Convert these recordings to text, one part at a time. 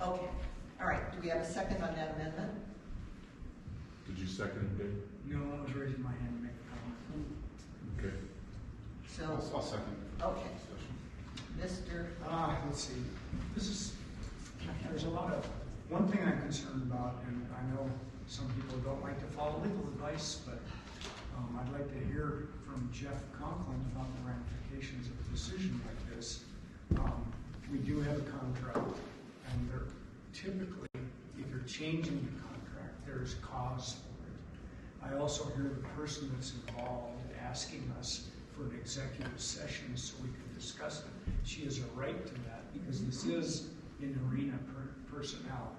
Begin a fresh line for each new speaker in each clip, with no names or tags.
Okay, all right, do we have a second on that amendment?
Did you second it, Dave?
No, I was raising my hand to make a comment.
Okay.
So,
I'll second.
okay, Mr.,
Ah, let's see, this is, there's a lot of, one thing I'm concerned about, and I know some people don't like to follow legal advice, but um, I'd like to hear from Jeff Conklin about the ramifications of a decision like this. Um, We do have a contract, and they're typically, if you're changing the contract, there's cause for it. I also hear the person that's involved asking us for an executive session so we can discuss it. She has a right to that because this is in arena per- personnel.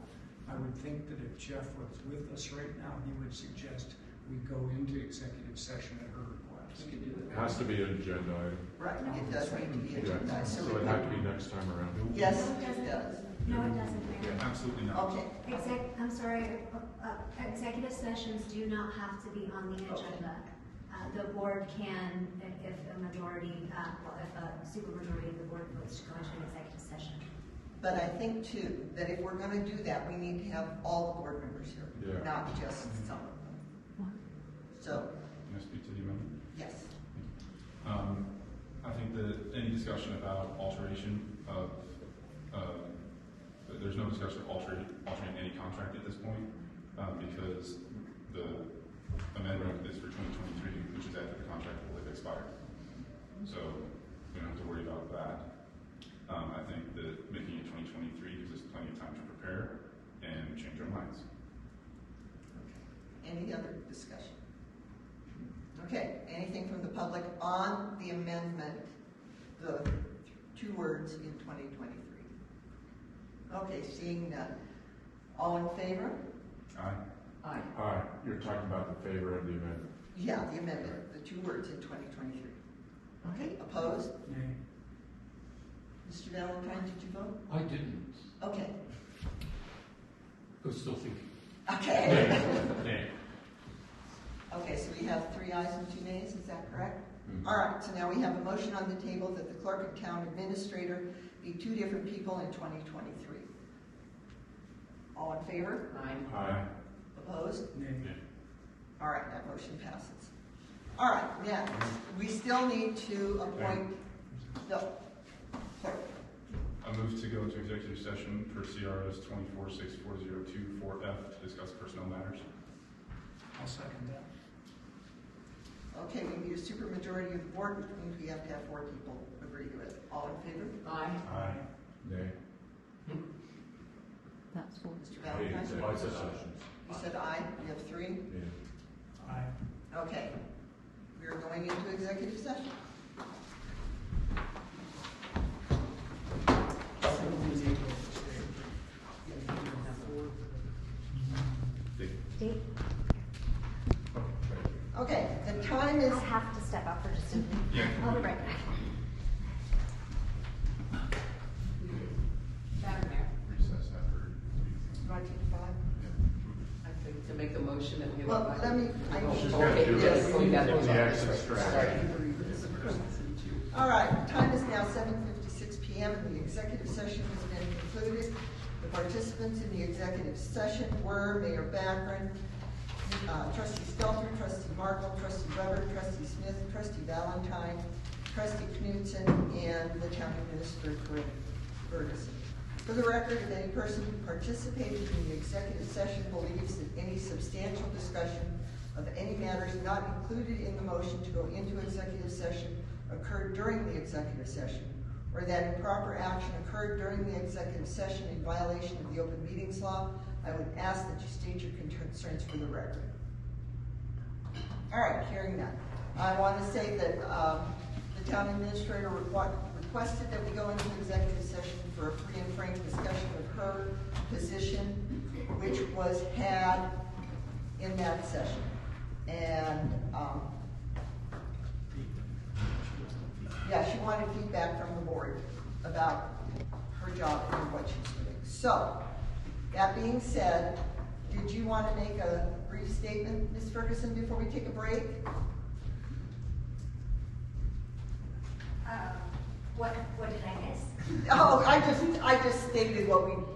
I would think that if Jeff was with us right now, he would suggest we go into executive session at her request.
we can do
It
it.
has to be an agenda item.
Right, it does need to be
Yeah,
agendized, so
so
we
it had to
can,
be next time around.
yes,
No,
it does.
doesn't. No, it doesn't, Mayor.
Absolutely not.
Okay,
Exec, I'm sorry, uh, uh, executive sessions do not have to be on the agenda. Uh, The board can, if- if a majority, uh, well, if a supermajority of the board votes to go into an executive session.
but I think too, that if we're gonna do that, we need to have all the board members here,
Yeah.
not just some of them. So,
Can I speak to the amendment?
yes,
Um, I think that any discussion about alteration of, um, th- there's no discussion of altering, altering any contract at this point, um, because the amendment is for twenty twenty-three, which is after the contract will have expired. So we don't have to worry about that. Um, I think that making it twenty twenty-three gives us plenty of time to prepare and change our minds.
any other discussion? Okay, anything from the public on the amendment, the two words in twenty twenty-three? Okay, seeing none, all in favor?
Aye?
Aye.
All right, you're talking about the favor of the amendment.
Yeah, the amendment, the two words in twenty twenty-three. Okay, opposed?
Nay.
Mr. Valentine, did you vote?
I didn't.
Okay,
I was still thinking.
okay.
Nay.
Okay, so we have three ayes and two nays, is that correct? All right, so now we have a motion on the table that the clerk and town administrator be two different people in twenty twenty-three. All in favor? Aye.
Aye.
Opposed?
Nay.
All right, that motion passes. All right, next, we still need to appoint the clerk.
I move to go into executive session per CRS twenty-four six four zero two four F to discuss personnel matters.
I'll second that.
Okay, we need a supermajority of the board, which means we have to have four people agree to it. All in favor? Aye.
Aye.
Nay.
That's what.
Mr.
Hey,
Valentine?
executive sessions.
You said aye, we have three?
Yeah.
Aye.
Okay. We are going into executive session.
Dave,
Okay, the time
I
is,
have to step out for just a minute.
Yeah.
I'll be right back.
Madam Mayor,
Recess after.
right to five?
I think to make a motion that we.
Well, let me- I- She's
gotta
Okay,
do
yes,
it.
going back.
Get the exit strategy.
Sorry.
All right, the time is now seven fifty-six PM, and the executive session has been concluded. The participants in the executive session were Mayor Backren, uh, trustee Stelter, trustee Markle, trustee Weber, trustee Smith, trustee Valentine, trustee Knudsen, and the town administrator, Corinne Ferguson. For the record, if any person who participated in the executive session believes that any substantial discussion of any matters not included in the motion to go into executive session occurred during the executive session, or that improper action occurred during the executive session in violation of the open meetings law, I would ask that you state your concerns for the record. All right, hearing none. I want to say that um, the town administrator requ- requested that we go into executive session for a free and frank discussion of her position, which was had in that session. And, um, yeah, she wanted feedback from the board about her job and what she's doing. So, that being said, did you want to make a brief statement, Ms. Ferguson, before we take a break?
Uh, What, what did I miss?
Oh, I just, I just stated what we